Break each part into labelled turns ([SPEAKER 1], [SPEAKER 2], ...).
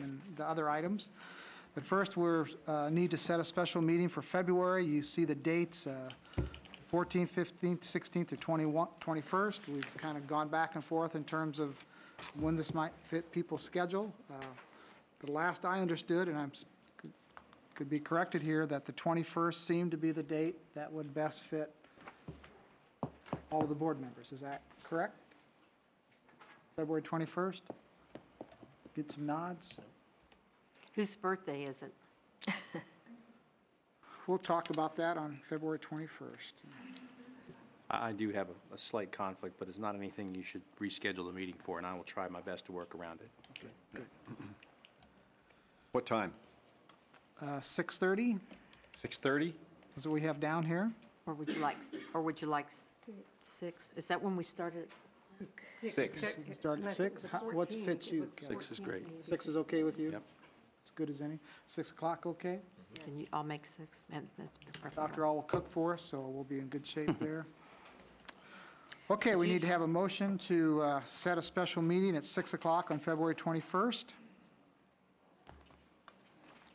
[SPEAKER 1] and the other items. But first, we're, uh, need to set a special meeting for February. You see the dates, uh, 14th, 15th, 16th, or 21 21st. We've kind of gone back and forth in terms of when this might fit people's schedule. Uh, The last I understood, and I'm, s- could- could be corrected here, that the 21st seemed to be the date that would best fit all of the board members. Is that correct? February 21st? Get some nods?
[SPEAKER 2] Whose birthday is it?
[SPEAKER 1] We'll talk about that on February 21st.
[SPEAKER 3] I, I do have a- a slight conflict, but it's not anything you should reschedule the meeting for, and I will try my best to work around it.
[SPEAKER 4] What time?
[SPEAKER 1] Uh, 6:30
[SPEAKER 4] 6:30?
[SPEAKER 1] is what we have down here.
[SPEAKER 2] Or would you like, or would you like six? Is that when we started?
[SPEAKER 4] Six.
[SPEAKER 1] We can Start at 6. How- What fits you? Kelly?
[SPEAKER 3] Six is great.
[SPEAKER 1] 6 is okay with you?
[SPEAKER 3] Yep.
[SPEAKER 1] As good as any. 6 o'clock, okay?
[SPEAKER 2] Can you, I'll make six. and that's perfect.
[SPEAKER 1] Dr. All will cook for us, so we'll be in good shape there. Okay, we need to have a motion to uh, set a special meeting at 6 o'clock on February 21st.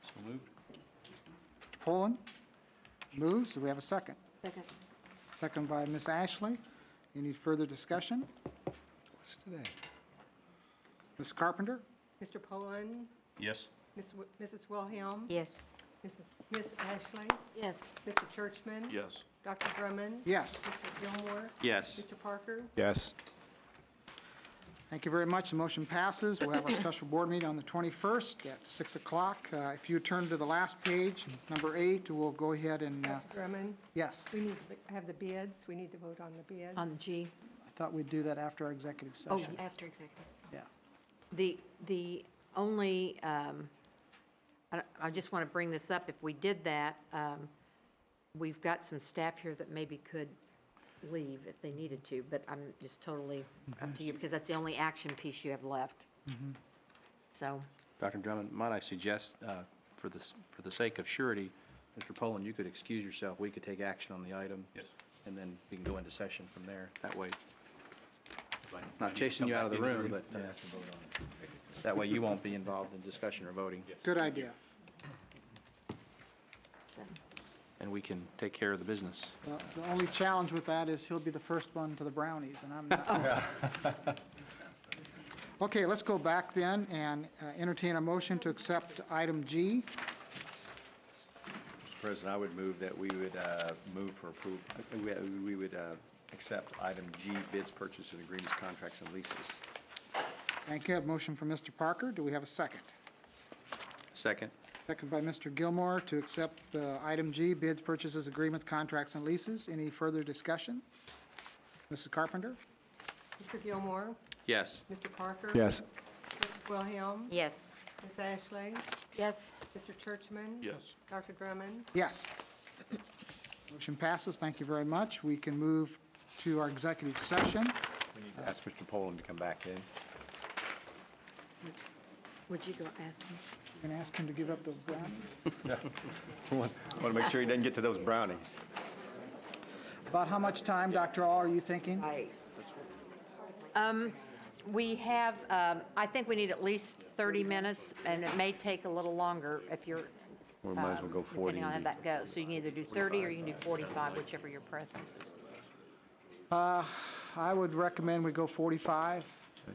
[SPEAKER 3] So moved.
[SPEAKER 1] Poland moves. Do we have a second?
[SPEAKER 2] Second.
[SPEAKER 1] Second by Ms. Ashley. Any further discussion?
[SPEAKER 3] What's today?
[SPEAKER 1] Ms. Carpenter?
[SPEAKER 5] Mr. Poland,
[SPEAKER 3] Yes.
[SPEAKER 5] Miss Wi- Mrs. Wilhelm,
[SPEAKER 2] Yes.
[SPEAKER 5] Mrs. Miss Ashley,
[SPEAKER 2] Yes.
[SPEAKER 5] Mr. Churchman.
[SPEAKER 3] Yes.
[SPEAKER 5] Dr. Drummond.
[SPEAKER 1] Yes.
[SPEAKER 5] Mr. Gilmore.
[SPEAKER 3] Yes.
[SPEAKER 5] Mr. Parker.
[SPEAKER 4] Yes.
[SPEAKER 1] Thank you very much. The motion passes. We'll have our special board meeting on the 21st at 6 o'clock. Uh, If you turn to the last page, number eight, we'll go ahead and, uh,
[SPEAKER 5] Dr. Drummond,
[SPEAKER 1] yes,
[SPEAKER 5] we need to have the bids. We need to vote on the bids.
[SPEAKER 2] On G.
[SPEAKER 1] I thought we'd do that after our executive
[SPEAKER 2] Oh,
[SPEAKER 1] session.
[SPEAKER 2] after executive.
[SPEAKER 1] Yeah.
[SPEAKER 2] The, the only, um, I I just want to bring this up, if we did that, um, we've got some staff here that maybe could leave if they needed to, but I'm just totally up to you, because that's the only action piece you have left. So,
[SPEAKER 3] Dr. Drummond, might I suggest, uh, for the, s- for the sake of surety, Mr. Poland, you could excuse yourself, we could take action on the item. Yes. And then we can go into session from there, that way. Not chasing you out of the room, but uh, that way you won't be involved in discussion or voting.
[SPEAKER 1] Good idea.
[SPEAKER 3] And we can take care of the business.
[SPEAKER 1] The the only challenge with that is he'll be the first one to the brownies, and I'm not. Okay, let's go back then and uh, entertain a motion to accept item G.
[SPEAKER 4] Mr. President, I would move that we would uh, move for approval, we would uh, accept item G, bids, purchases, agreements, contracts, and leases.
[SPEAKER 1] Thank you. A motion from Mr. Parker. Do we have a second?
[SPEAKER 3] Second.
[SPEAKER 1] Second by Mr. Gilmore to accept uh, item G, bids, purchases, agreements, contracts, and leases. Any further discussion? Mrs. Carpenter?
[SPEAKER 5] Mr. Gilmore,
[SPEAKER 3] Yes.
[SPEAKER 5] Mr. Parker.
[SPEAKER 4] Yes.
[SPEAKER 5] Mrs. Wilhelm,
[SPEAKER 2] yes.
[SPEAKER 5] Miss Ashley,
[SPEAKER 2] Yes.
[SPEAKER 5] Mr. Churchman.
[SPEAKER 3] Yes.
[SPEAKER 5] Dr. Drummond.
[SPEAKER 1] Yes. Motion passes. Thank you very much. We can move to our executive session.
[SPEAKER 4] We need to ask Mr. Poland to come back in.
[SPEAKER 2] Would you go ask him?
[SPEAKER 1] Going to ask him to give up those brownies.
[SPEAKER 4] Want to make sure he doesn't get to those brownies.
[SPEAKER 1] About how much time, Dr. All, are you thinking?
[SPEAKER 2] Um, We have, um, I think we need at least 30 minutes, and it may take a little longer if you're.
[SPEAKER 4] We might as
[SPEAKER 2] um,
[SPEAKER 4] well go 40
[SPEAKER 2] Depending on how
[SPEAKER 4] and
[SPEAKER 2] that goes. So you can either do 30 or you can do 45, whichever your preference is.
[SPEAKER 1] I would recommend we go 45 at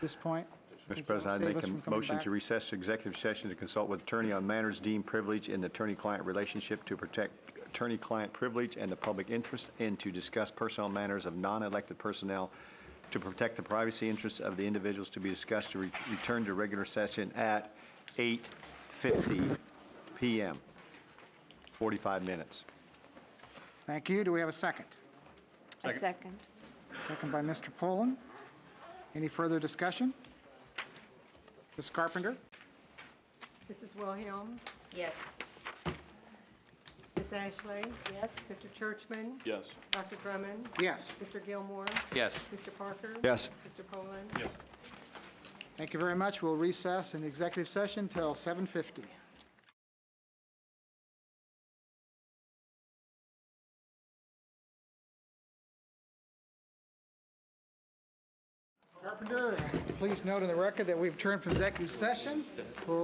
[SPEAKER 1] this point.
[SPEAKER 4] Mr. President, I'd
[SPEAKER 1] Save us
[SPEAKER 4] make
[SPEAKER 1] from
[SPEAKER 4] a
[SPEAKER 1] coming
[SPEAKER 4] motion
[SPEAKER 1] back.
[SPEAKER 4] to recess to executive session to consult with attorney on matters deemed privileged in the attorney-client relationship to protect attorney-client privilege and the public interest, and to discuss personnel matters of non-elected personnel to protect the privacy interests of the individuals to be discussed to re- return to regular session at 8:50 PM. 45 minutes.
[SPEAKER 1] Thank you. Do we have a second?
[SPEAKER 2] A second.
[SPEAKER 1] Second by Mr. Poland. Any further discussion? Ms. Carpenter?
[SPEAKER 5] Mrs. Wilhelm,
[SPEAKER 2] Yes.
[SPEAKER 5] Miss Ashley,
[SPEAKER 2] Yes.
[SPEAKER 5] Mr. Churchman.
[SPEAKER 3] Yes.
[SPEAKER 5] Dr. Drummond,
[SPEAKER 1] Yes.
[SPEAKER 5] Mr. Gilmore,
[SPEAKER 3] Yes.
[SPEAKER 5] Mr. Parker.
[SPEAKER 4] Yes.
[SPEAKER 5] Mr. Poland.
[SPEAKER 1] Thank you very much. We'll recess in executive session till 7:50. Carpenter? Carpenter. Please note in the record that we've turned from executive session. We'll